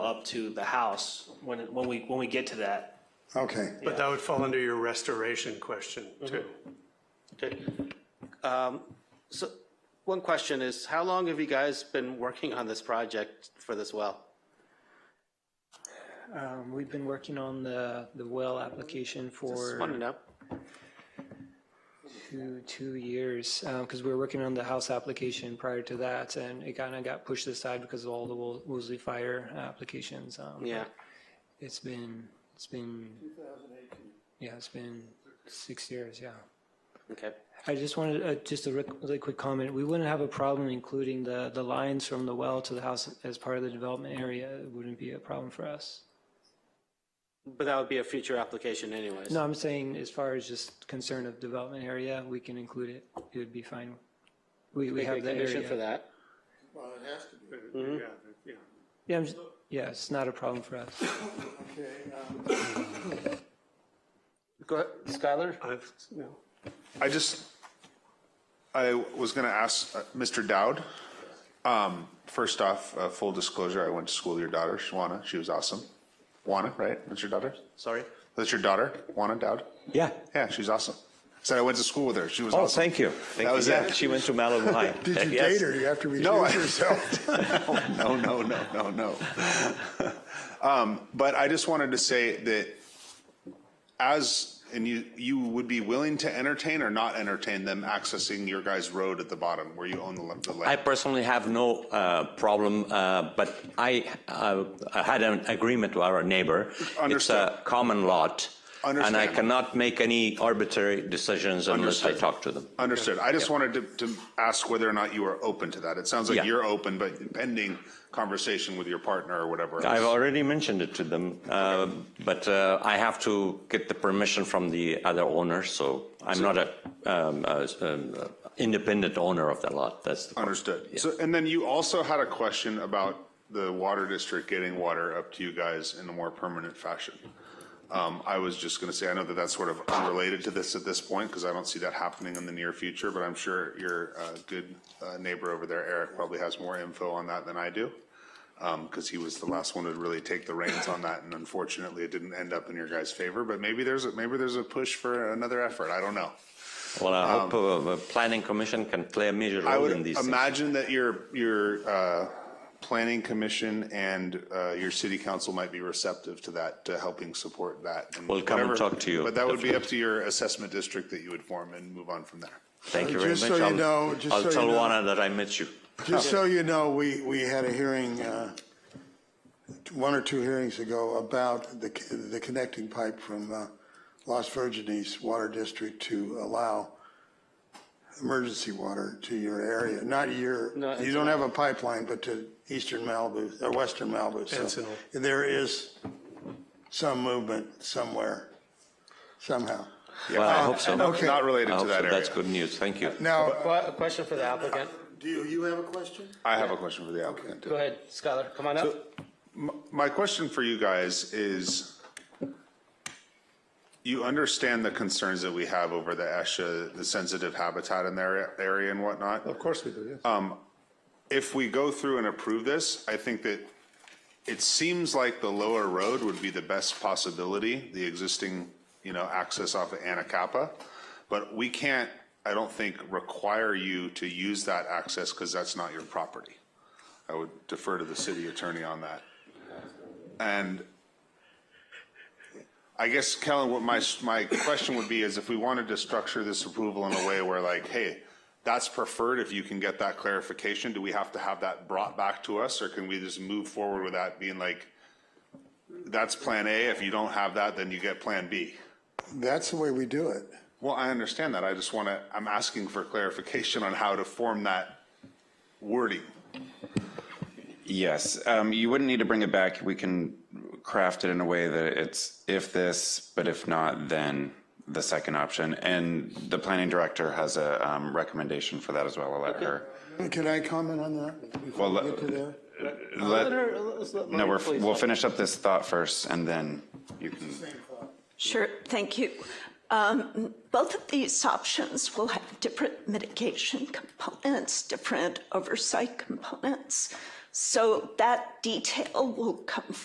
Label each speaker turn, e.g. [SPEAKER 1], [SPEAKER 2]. [SPEAKER 1] up to the house when, when we, when we get to that.
[SPEAKER 2] Okay,
[SPEAKER 3] But that would fall under your restoration question too.
[SPEAKER 4] Okay. Um, So, one question is, how long have you guys been working on this project for this well?
[SPEAKER 5] Um, We've been working on the, the well application
[SPEAKER 4] Just want to
[SPEAKER 5] for
[SPEAKER 4] know.
[SPEAKER 5] two, two years, because we were working on the house application prior to that, and it kind of got pushed aside because of all the Wo- Woolsey Fire applications. Um,
[SPEAKER 4] Yeah,
[SPEAKER 5] It's been, it's been. 2018. Yeah, it's been six years, yeah.
[SPEAKER 4] okay.
[SPEAKER 5] I just wanted, uh, just a ric- really quick comment. We wouldn't have a problem including the, the lines from the well to the house as part of the development area. It wouldn't be a problem for us.
[SPEAKER 4] But that would be a future application anyways.
[SPEAKER 5] No, I'm saying as far as just concern of development area, we can include it. It would be fine. We, we
[SPEAKER 4] Make a
[SPEAKER 5] have the
[SPEAKER 4] Condition for
[SPEAKER 5] area.
[SPEAKER 4] that.
[SPEAKER 2] well, it has to be,
[SPEAKER 3] Yeah, yeah.
[SPEAKER 5] Yeah, I'm just- yeah, it's not a problem for us.
[SPEAKER 2] okay, um,
[SPEAKER 4] Go ahead, Skylar?
[SPEAKER 3] I've- no.
[SPEAKER 6] I just, I was going to ask uh, Mr. Dowd. Um, first off, uh, full disclosure, I went to school with your daughter, Shwana. She was awesome. Juana, right? That's your daughter?
[SPEAKER 4] Sorry?
[SPEAKER 6] That's your daughter, Juana Dowd?
[SPEAKER 7] Yeah.
[SPEAKER 6] Yeah, she's awesome. Said I went to school with her. She was
[SPEAKER 7] Oh,
[SPEAKER 6] awesome.
[SPEAKER 7] thank you. Thank
[SPEAKER 6] That
[SPEAKER 7] you.
[SPEAKER 6] was
[SPEAKER 7] Yeah,
[SPEAKER 6] it.
[SPEAKER 7] She went to Malibu High.
[SPEAKER 2] did you
[SPEAKER 7] Yes.
[SPEAKER 2] date her? You have to
[SPEAKER 6] No, I-
[SPEAKER 2] recuse yourself.
[SPEAKER 6] no, no, no, no, no. um, but I just wanted to say that as and you you would be willing to entertain or not entertain them accessing your guys' road at the bottom where you own the, the land.
[SPEAKER 7] I personally have no uh, problem, uh, but I uh, I had an agreement with our neighbor. It's
[SPEAKER 6] Understood.
[SPEAKER 7] a common lot. And I
[SPEAKER 6] Understand.
[SPEAKER 7] cannot make any arbitrary decisions unless I
[SPEAKER 6] Understood.
[SPEAKER 7] talk to them.
[SPEAKER 6] Understood. I just wanted to, to ask whether or not you are open to that. It sounds like
[SPEAKER 7] Yeah.
[SPEAKER 6] you're open, but pending conversation with your partner or whatever.
[SPEAKER 7] I've
[SPEAKER 6] else.
[SPEAKER 7] already mentioned it to them, uh, but uh, I have to get the permission from the other owner, so I'm not a um, a- um, independent owner of the lot. That's the
[SPEAKER 6] Understood. So, and then you also had a question about the water district getting water up to you guys in a more permanent fashion. Um, I was just going to say, I know that that's sort of unrelated to this at this point because I don't see that happening in the near future, but I'm sure your uh, good uh, neighbor over there, Eric, probably has more info on that than I do because he was the last one to really take the reins on that, and unfortunately, it didn't end up in your guys' favor. But maybe there's a, maybe there's a push for another effort. I don't know.
[SPEAKER 7] Well, I hope uh,
[SPEAKER 2] Um,
[SPEAKER 7] the planning commission can play a major
[SPEAKER 6] I
[SPEAKER 7] role in
[SPEAKER 6] would
[SPEAKER 7] these things.
[SPEAKER 6] imagine that your, your uh, planning commission and uh, your city council might be receptive to that, to helping support that. and
[SPEAKER 7] We'll come and
[SPEAKER 6] whatever-
[SPEAKER 7] talk to you,
[SPEAKER 6] But that would be up to your assessment district that you would form and move on from there.
[SPEAKER 7] Thank you very much.
[SPEAKER 2] Just so you
[SPEAKER 7] I'll-
[SPEAKER 2] know- just so
[SPEAKER 7] I'll
[SPEAKER 2] you
[SPEAKER 7] tell
[SPEAKER 2] know-
[SPEAKER 7] Juana that I met you.
[SPEAKER 2] Just so you know, we, we had a hearing, uh, one or two hearings ago about the, the connecting pipe from uh, Las Virgenes Water District to allow emergency water to your area, not your,
[SPEAKER 4] No, it's
[SPEAKER 2] you don't have a pipeline, but to eastern Malibu, or western Malibu. So
[SPEAKER 3] Encino.
[SPEAKER 2] There is some movement somewhere, somehow.
[SPEAKER 7] Well,
[SPEAKER 2] Oh,
[SPEAKER 7] I hope so.
[SPEAKER 6] Not not related
[SPEAKER 7] I
[SPEAKER 6] to
[SPEAKER 7] hope
[SPEAKER 6] that
[SPEAKER 7] so.
[SPEAKER 6] area.
[SPEAKER 7] That's good news. Thank you.
[SPEAKER 2] Now,
[SPEAKER 4] Qu- A question for the applicant.
[SPEAKER 2] do you have a question?
[SPEAKER 6] I have a question for the applicant.
[SPEAKER 4] Go ahead, Skylar, come on up.
[SPEAKER 6] My question for you guys is, you understand the concerns that we have over the ESHA, the sensitive habitat in their area and whatnot? Um,
[SPEAKER 3] Of course we do, yes.
[SPEAKER 6] if we go through and approve this, I think that it seems like the lower road would be the best possibility, the existing, you know, access off of Anacapa. But we can't, I don't think, require you to use that access because that's not your property. I would defer to the city attorney on that. And I guess, Kellen, what my, my question would be is if we wanted to structure this approval in a way where like, hey, that's preferred, if you can get that clarification, do we have to have that brought back to us? Or can we just move forward with that being like, that's Plan A, if you don't have that, then you get Plan B?
[SPEAKER 2] That's the way we do it.
[SPEAKER 6] Well, I understand that, I just want to, I'm asking for clarification on how to form that wording.
[SPEAKER 8] Yes, um, you wouldn't need to bring it back. We can craft it in a way that it's if this, but if not, then the second option. And the planning director has a um, recommendation for that as well, a letter.
[SPEAKER 2] Can I comment on that? before
[SPEAKER 8] Well,
[SPEAKER 2] we
[SPEAKER 8] let-
[SPEAKER 2] Get to there.
[SPEAKER 8] Let- No,
[SPEAKER 4] No,
[SPEAKER 8] we're, we'll finish up this thought first and then you can.
[SPEAKER 9] Sure, thank you. Um, Both of these options will have different mitigation components, different oversight components. So that detail will come